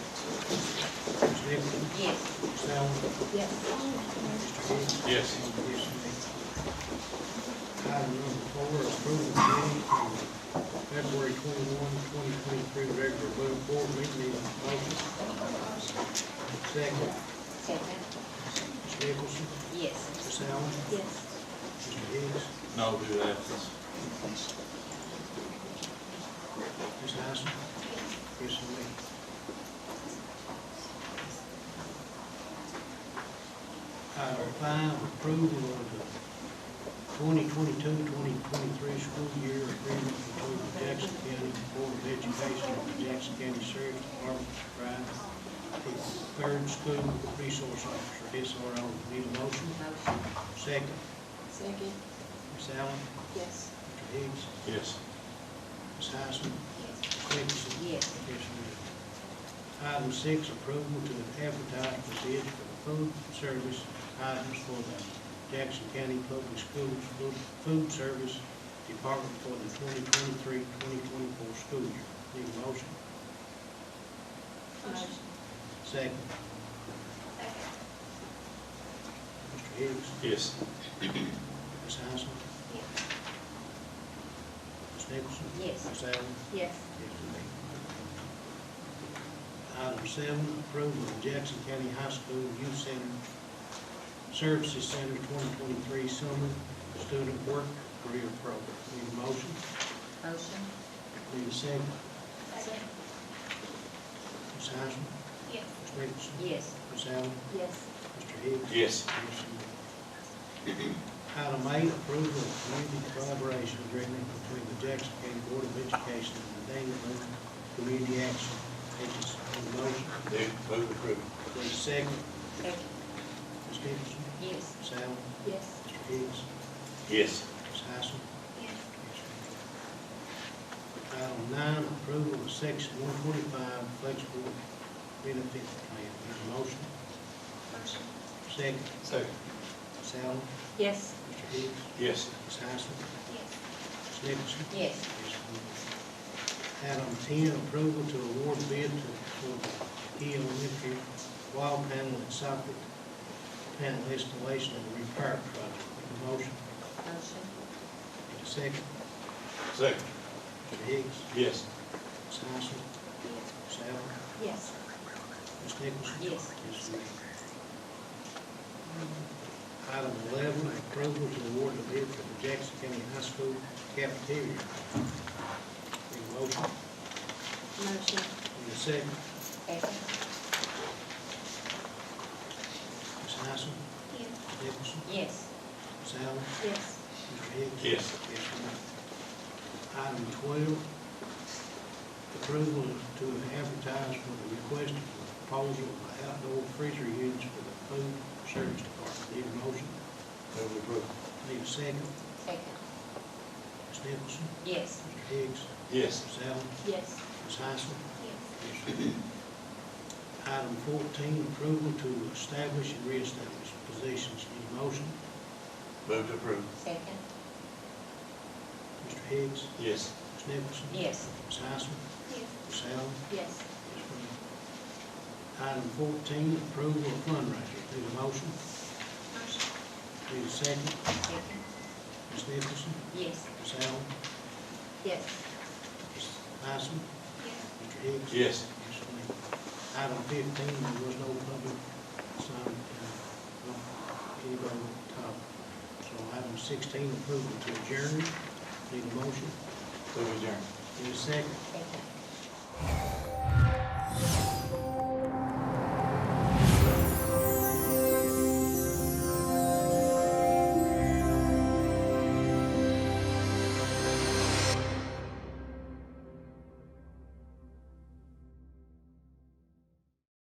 Gibson, Yes. Mr. Allen, Yes. Mr. Hicks. Yes. Yes, indeed. Item number four, approval of minutes from February twenty-one, twenty twenty-three, regular Blue board meeting, motion. Second, Second. Ms. Nicholson, Yes. Ms. Allen, Yes. Mr. Hicks, No due absence. Ms. Hyson. Yes, indeed. Item five, approval of the 2022-2023 school year agreement between the Jackson County Board of Education and the Jackson County Sheriff's Department to provide for third school resource officer, SRO. Need a motion? Motion. Second, Second. Ms. Allen, Yes. Mr. Hicks, Yes. Ms. Hyson, Ms. Nicholson, Yes. Yes, ma'am. Item six, approval to advertise for bids for the food service items for the Jackson County Public Schools Food- Food Service Department for the 2023-2024 school year. Need a motion? Motion. Second. Mr. Hicks, Yes. Ms. Hyson, Ms. Nicholson. Yes. Ms. Allen. Yes. Yes, indeed. Item seven, approval of Jackson County High School Youth Center Services Center twenty twenty-three Summer Student Work Career Program. Need a motion? Motion. Need a second? Second. Ms. Heisman? Yes. Ms. Nicholson? Yes. Ms. Allen? Yes. Mr. Hicks? Yes. Yes, indeed. Item eight, approval of community collaboration agreement between the Jackson County Board of Education and the Dana Boone Community Action Agency. Need a motion? Move approval. Need a second? Second. Ms. Nicholson? Yes. Ms. Allen? Yes. Mr. Hicks? Yes. Ms. Hyson? Yes. Item nine, approval of section one twenty-five flexible benefit plan. Need a motion? Motion. Second. Second. Ms. Allen? Yes. Mr. Hicks? Yes. Ms. Hyson? Yes. Ms. Nicholson? Yes. Yes, ma'am. Item ten, approval to award bid to, for the E Olympia wall panel and socket panel installation and repair project. Need a motion? Motion. Need a second? Second. Mr. Hicks? Yes. Ms. Hyson? Ms. Allen? Yes. Ms. Nicholson? Yes. Yes, ma'am. Item eleven, approval to award the bid for the Jackson County High School cafeteria. Need a motion? Motion. Need a second? Second. Ms. Hyson? Ms. Nicholson? Yes. Ms. Allen? Yes. Mr. Hicks? Yes. Yes, ma'am. Item twelve, approval to advertise for the request for proposal of the outdoor freezer units for the food service department. Need a motion? Move approval. Need a second? Second. Ms. Nicholson? Yes. Mr. Hicks? Yes. Ms. Allen? Yes. Ms. Hyson? Yes. Yes, ma'am. Item fourteen, approval to establish and reestablish positions. Need a motion? Move approval. Second. Mr. Hicks? Yes. Ms. Nicholson? Yes. Ms. Hyson? Yes. Ms. Allen? Yes. Yes, ma'am. Item fourteen, approval of fundraiser. Need a motion? Motion. Need a second? Second. Ms. Nicholson? Yes. Ms. Allen? Yes. Ms. Hyson? Yes. Mr. Hicks? Yes. Yes, ma'am. Item fifteen, there was no public sign, uh, no, anybody on top. So item sixteen, approval to adjourn. Need a motion? Move adjourned. Need a second? Second. Ms.